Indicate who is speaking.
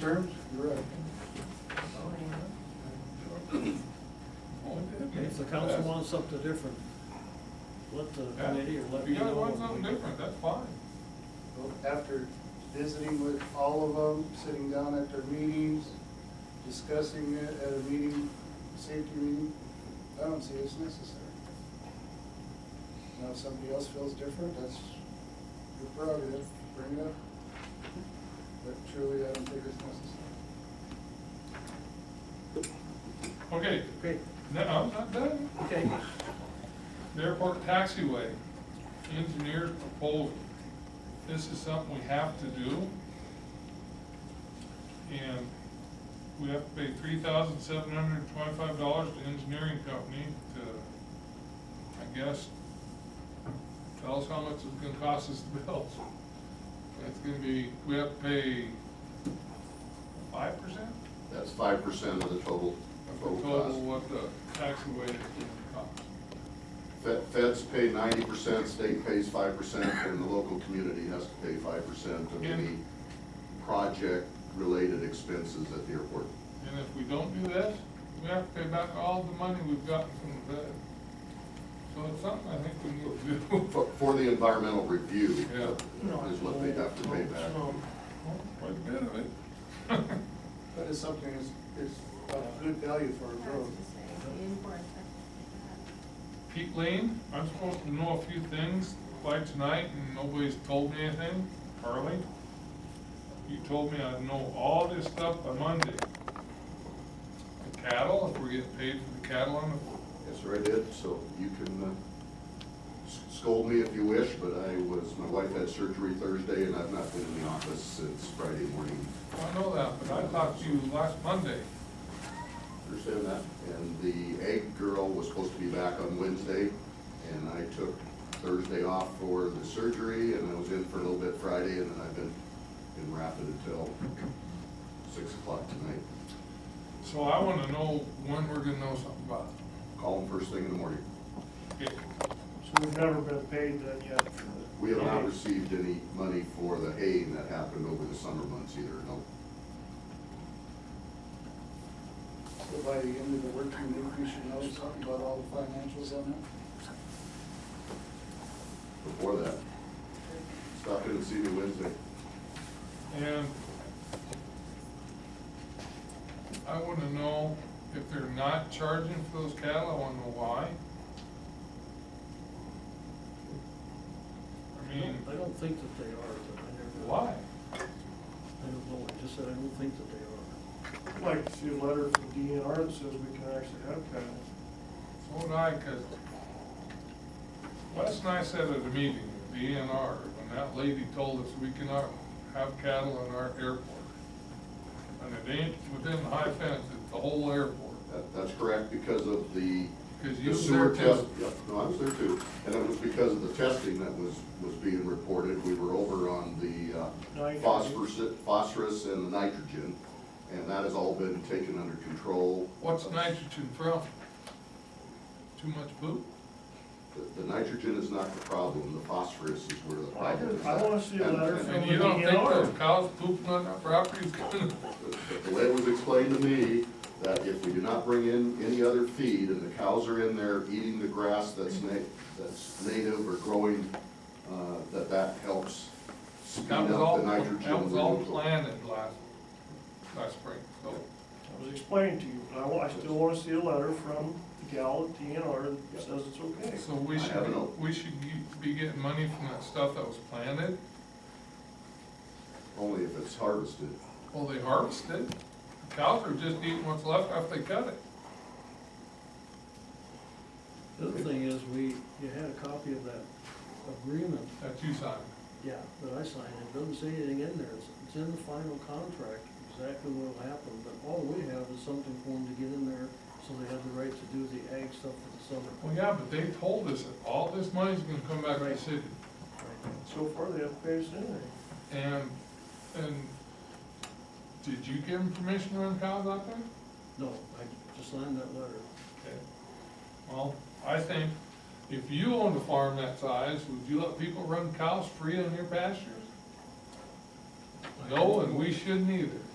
Speaker 1: Terms, you're up.
Speaker 2: If the council wants something different, let the
Speaker 3: Yeah.
Speaker 2: committee or let
Speaker 3: If
Speaker 2: me
Speaker 3: you
Speaker 2: know.
Speaker 3: guys want
Speaker 2: and we
Speaker 3: something
Speaker 2: can-
Speaker 3: different, that's fine.
Speaker 1: Well, After visiting with all of them, sitting down at their meetings, discussing it at a meeting, safety meeting, I don't see it's necessary. Now, if somebody else feels different, that's your prerogative, bring it up. But truly, I don't think it's necessary.
Speaker 3: Okay,
Speaker 2: Okay,
Speaker 3: no, I'm not done.
Speaker 2: okay.
Speaker 3: The Airport taxiway, engineered proposal. This is something we have to do. And we have to pay three thousand seven hundred and twenty-five dollars to engineering company to, I guess, tell us how much it's gonna cost us to build. It's gonna be, we have to pay five percent?
Speaker 4: That's five percent of the total,
Speaker 3: of the
Speaker 4: total
Speaker 3: total
Speaker 4: cost.
Speaker 3: what the taxiway is gonna cost.
Speaker 4: Fe- Feds pay ninety percent, state pays five percent, and the local community has to pay five percent of
Speaker 3: Yeah.
Speaker 4: any project-related expenses at the airport.
Speaker 3: And if we don't do this, we have to pay back all the money we've gotten from the feds. So it's something I think we need to do.
Speaker 4: For, for the environmental review
Speaker 3: Yeah.
Speaker 4: is what they have to pay back.
Speaker 3: Quite a bit of it.
Speaker 1: But it's something that's, is of good value for our growth.
Speaker 3: Pete Lane, I'm supposed to know a few things by tonight and nobody's told me anything. Harley, you told me I'd know all this stuff by Monday. The cattle, if we're getting paid for the cattle on the
Speaker 4: Yes, sir, I did, so you can uh, s- scold me if you wish, but I was, my wife had surgery Thursday, and I've not been in the office since Friday morning.
Speaker 3: I know that, but I talked to you last Monday.
Speaker 4: Understand that? And the egg girl was supposed to be back on Wednesday, and I took Thursday off for the surgery, and I was in for a little bit Friday, and then I've been in Rapid until six o'clock tonight.
Speaker 3: So I wanna know when we're gonna know something about
Speaker 4: Call them first thing in the morning.
Speaker 3: it.
Speaker 2: So we've never been paid that yet.
Speaker 4: We have not received any money for the haying that happened over the summer months either, no.
Speaker 1: So by the end of the working week, we should know something about all the financials on
Speaker 4: Before that, stop in and see me Wednesday.
Speaker 3: And I wanna know if they're not charging for those cattle, I wanna know why. I
Speaker 2: I
Speaker 3: mean,
Speaker 2: don't- I don't think that they are, but I never.
Speaker 3: why?
Speaker 2: I don't know, I just said I don't think that they are.
Speaker 5: I'd like to see a letter from DNR that says we can actually have cattle.
Speaker 3: So would I, cause Wes and I said at a meeting, the ENR, when that lady told us we cannot have cattle in our airport. And it ain't within the high fence, it's the whole airport.
Speaker 4: That, that's correct, because of the.
Speaker 3: 'Cause
Speaker 4: the
Speaker 3: you were
Speaker 4: sewer
Speaker 3: there
Speaker 4: test.
Speaker 3: too.
Speaker 4: Yep, no, I was there too, and it was because of the testing that was, was being reported, we were over on the uh,
Speaker 5: Nitrogen.
Speaker 4: phosphorus, phosphorus and the nitrogen, and that has all been taken under control.
Speaker 3: What's nitrogen from? Too much poop?
Speaker 4: The- The nitrogen is not the problem, the phosphorus is where the
Speaker 5: I
Speaker 4: problem
Speaker 5: could-
Speaker 4: is.
Speaker 5: I wanna see a
Speaker 4: And-
Speaker 5: letter
Speaker 4: and-
Speaker 5: from
Speaker 3: And you don't think
Speaker 5: DNR.
Speaker 3: those cows pooping on that property is gonna,
Speaker 4: But The way it was explained to me, that if we do not bring in any other feed and the cows are in there eating the grass that's na, that's native or growing, uh, that that helps speed
Speaker 3: that was all,
Speaker 4: up the nitrogen.
Speaker 3: that was all
Speaker 4: removal.
Speaker 3: planted last, last spring, so.
Speaker 5: That was explained to you, but I wa, I still wanna see a letter from the gal at DNR that says it's okay.
Speaker 3: So we
Speaker 4: I
Speaker 3: should,
Speaker 4: have
Speaker 3: be-
Speaker 4: no-
Speaker 3: we should ge- be getting money from that stuff that was planted,
Speaker 4: Only if it's harvested.
Speaker 3: well, they harvested. The Cows are just eating what's left after they cut it.
Speaker 2: The other thing is, we, you had a copy of that agreement,
Speaker 3: That's you signed.
Speaker 2: yeah, that I signed, it doesn't say anything in there, it's, it's in the final contract, exactly what'll happen, but all we have is something for them to get in there, so they have the right to do the ag stuff for the summer.
Speaker 3: Well, yeah, but they told us that all this money's gonna come back to the
Speaker 2: Right.
Speaker 3: city.
Speaker 2: Right.
Speaker 5: So far, they haven't paid us anything.
Speaker 3: And, and did you give them permission to run cows out there?
Speaker 2: No, I just signed that letter.
Speaker 3: Okay. Well, I think if you owned a farm that size, would you let people run cows free on your pastures? No, and we shouldn't either.